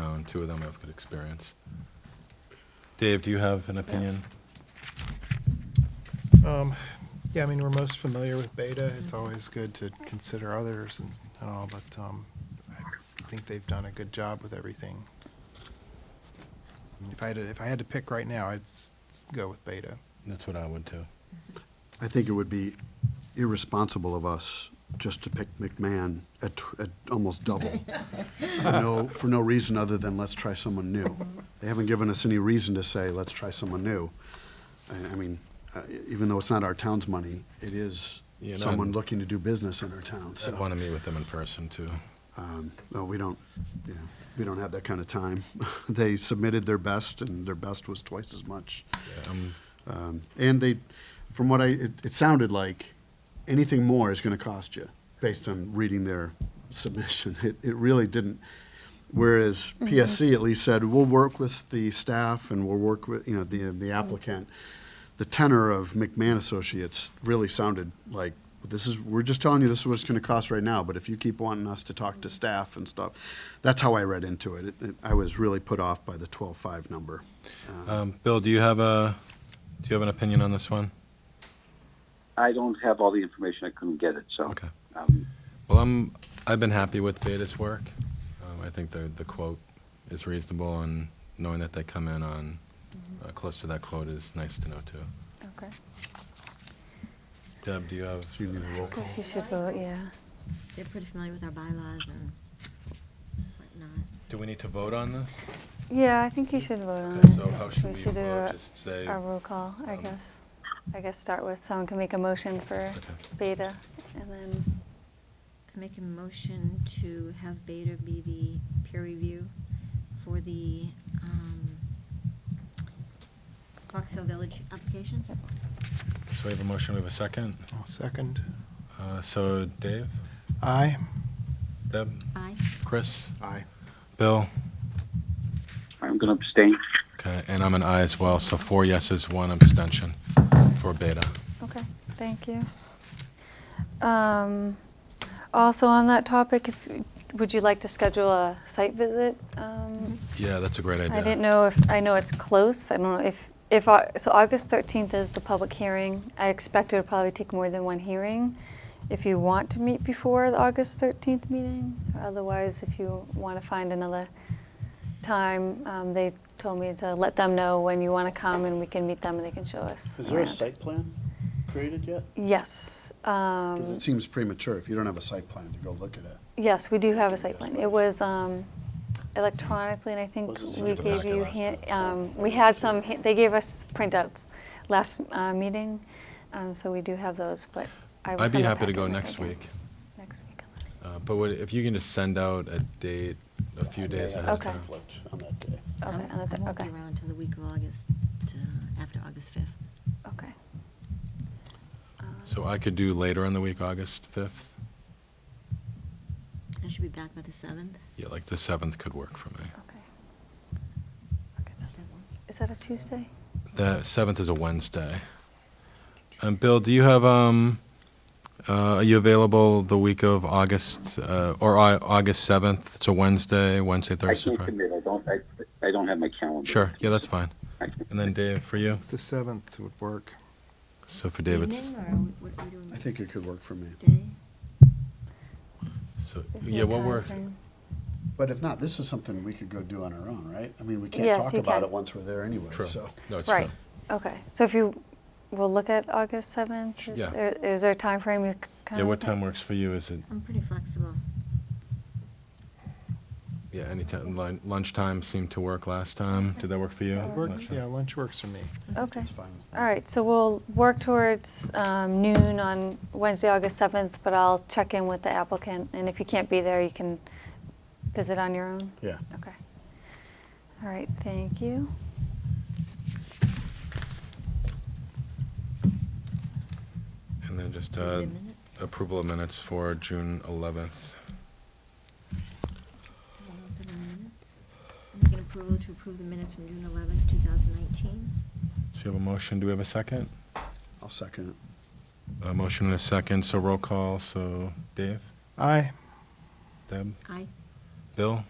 them, two of them have good experience. Dave, do you have an opinion? Um, Yeah, I mean, we're most familiar with beta. It's always good to consider others and and all, but um, I think they've done a good job with everything. I mean, If I had, to- if I had to pick right now, I'd s- s- go with beta. That's what I would too. I think it would be irresponsible of us just to pick McMahon at, tr- at almost double. For no, for no reason other than let's try someone new. They haven't given us any reason to say, let's try someone new. I, I mean, uh, e- even though it's not our town's money, it is Yeah, and someone I'd- looking to do business in our town, I want so. to meet with them in person too. um, No, we don't, you know, we don't have that kind of time. They submitted their best and their best was twice as much. Yeah, I'm- Um, And they, from what I, it, it sounded like anything more is going to cost you based on reading their submission. It, it really didn't. Whereas PSC at least said, we'll work with the staff and we'll work with, you know, the, the applicant. The tenor of McMahon Associates really sounded like, this is, we're just telling you this is what it's going to cost right now, but if you keep wanting us to talk to staff and stuff, that's how I read into it. It- it- I was really put off by the twelve-five number. Uh, Um, Bill, do you have a, do you have an opinion on this one? I don't have all the information. I couldn't get it, so. Okay. Um, Well, I'm, I've been happy with Beta's work. Um, I think the, the quote is reasonable and knowing that they come in on, uh, close to that quote is nice to know too. Okay. Deb, do you have? Do you need a roll call? Guess you should vote, yeah. They're pretty familiar with our bylaws and whatnot. Do we need to vote on this? Yeah, I think you should vote on Okay, it. so how should we do vote? a- Just say- A roll call, I um, guess. I guess start with, someone can make a motion for Okay. beta, and then, I make a motion to have Beta be the peer review for the um, Fox Hill Village application. So we have a motion, we have a second. I'll second. Uh, so Dave, Aye. Deb, Aye. Chris, Aye. Bill? I'm going to abstain. Okay, and I'm an aye as well, so four yeses, one abstention for Beta. okay, thank you. Um, Also on that topic, if, would you like to schedule a site visit? Um, Yeah, that's a great idea. I didn't know if, I know it's close, I don't know if, if, au- so August 13th is the public hearing. I expect it'll probably take more than one hearing. If you want to meet before the August 13th meeting, otherwise, if you want to find another time, um, they told me to let them know when you want to come and we can meet them and they can show us. Is there a around. site plan created yet? Yes. um, Because it seems premature if you don't have a site plan to go look at it. Yes, we do have a site plan. It was um, electronically, and I think Was it we sent gave back you, last hand- time? um, we had some, ha- they gave us printouts last uh, meeting, um, so we do have those, but I will I'd be send a happy to go packet back next again. week, Next week. uh, but would- if you can just send out a date a few days ahead of Okay. time. Conflict on that day. Okay, Um, on the I thir- won't okay, be around until the week of August, uh, after August 5th. okay. Um, So I could do later in the week, August 5th? I should be back by the 7th. Yeah, like the 7th could work for me. Um, okay. Okay, so- Is that a Tuesday? The 7th is a Wednesday. And Bill, do you have, um, uh, are you available the week of August, uh, or Au- August 7th? It's a Wednesday, Wednesday, I Thursday, can't Friday? commit. I don't, I, I don't have my calendar. Sure, yeah, that's fine. I can't- And then Dave, for you? The seventh would work. So for Dave, it's, Evening, or what are we doing? I think it could work for me. Day? so, Is there yeah, a what we're, timeframe? But if not, this is something we could go do on our own, right? I mean, we can't Yes, talk you about can. it once we're there anyway, True. so. No, it's Right, fine. okay. So if you, we'll look at August 7th? Is Yeah. there- Is there a timeframe you kind Yeah, of? what time works for you? Is it, I'm pretty flexible. yeah, anytime, lun- lunchtime seemed to work last time. Did that work for you? It works, Melissa? yeah, lunch works for me. Okay. It's fine. All right, so we'll work towards um, noon on Wednesday, August 7th, but I'll check in with the applicant, and if you can't be there, you can visit on your own? Yeah. Okay. All right, thank you. And then just Give me uh, a minute. approval of minutes for June 11th. oh Seven minutes. Make an approval to approve the minutes from June 11th, 2019. So you have a motion, do we have a second? I'll second it. A motion and a second, so roll call, so Dave, Aye. Deb, Aye. Bill?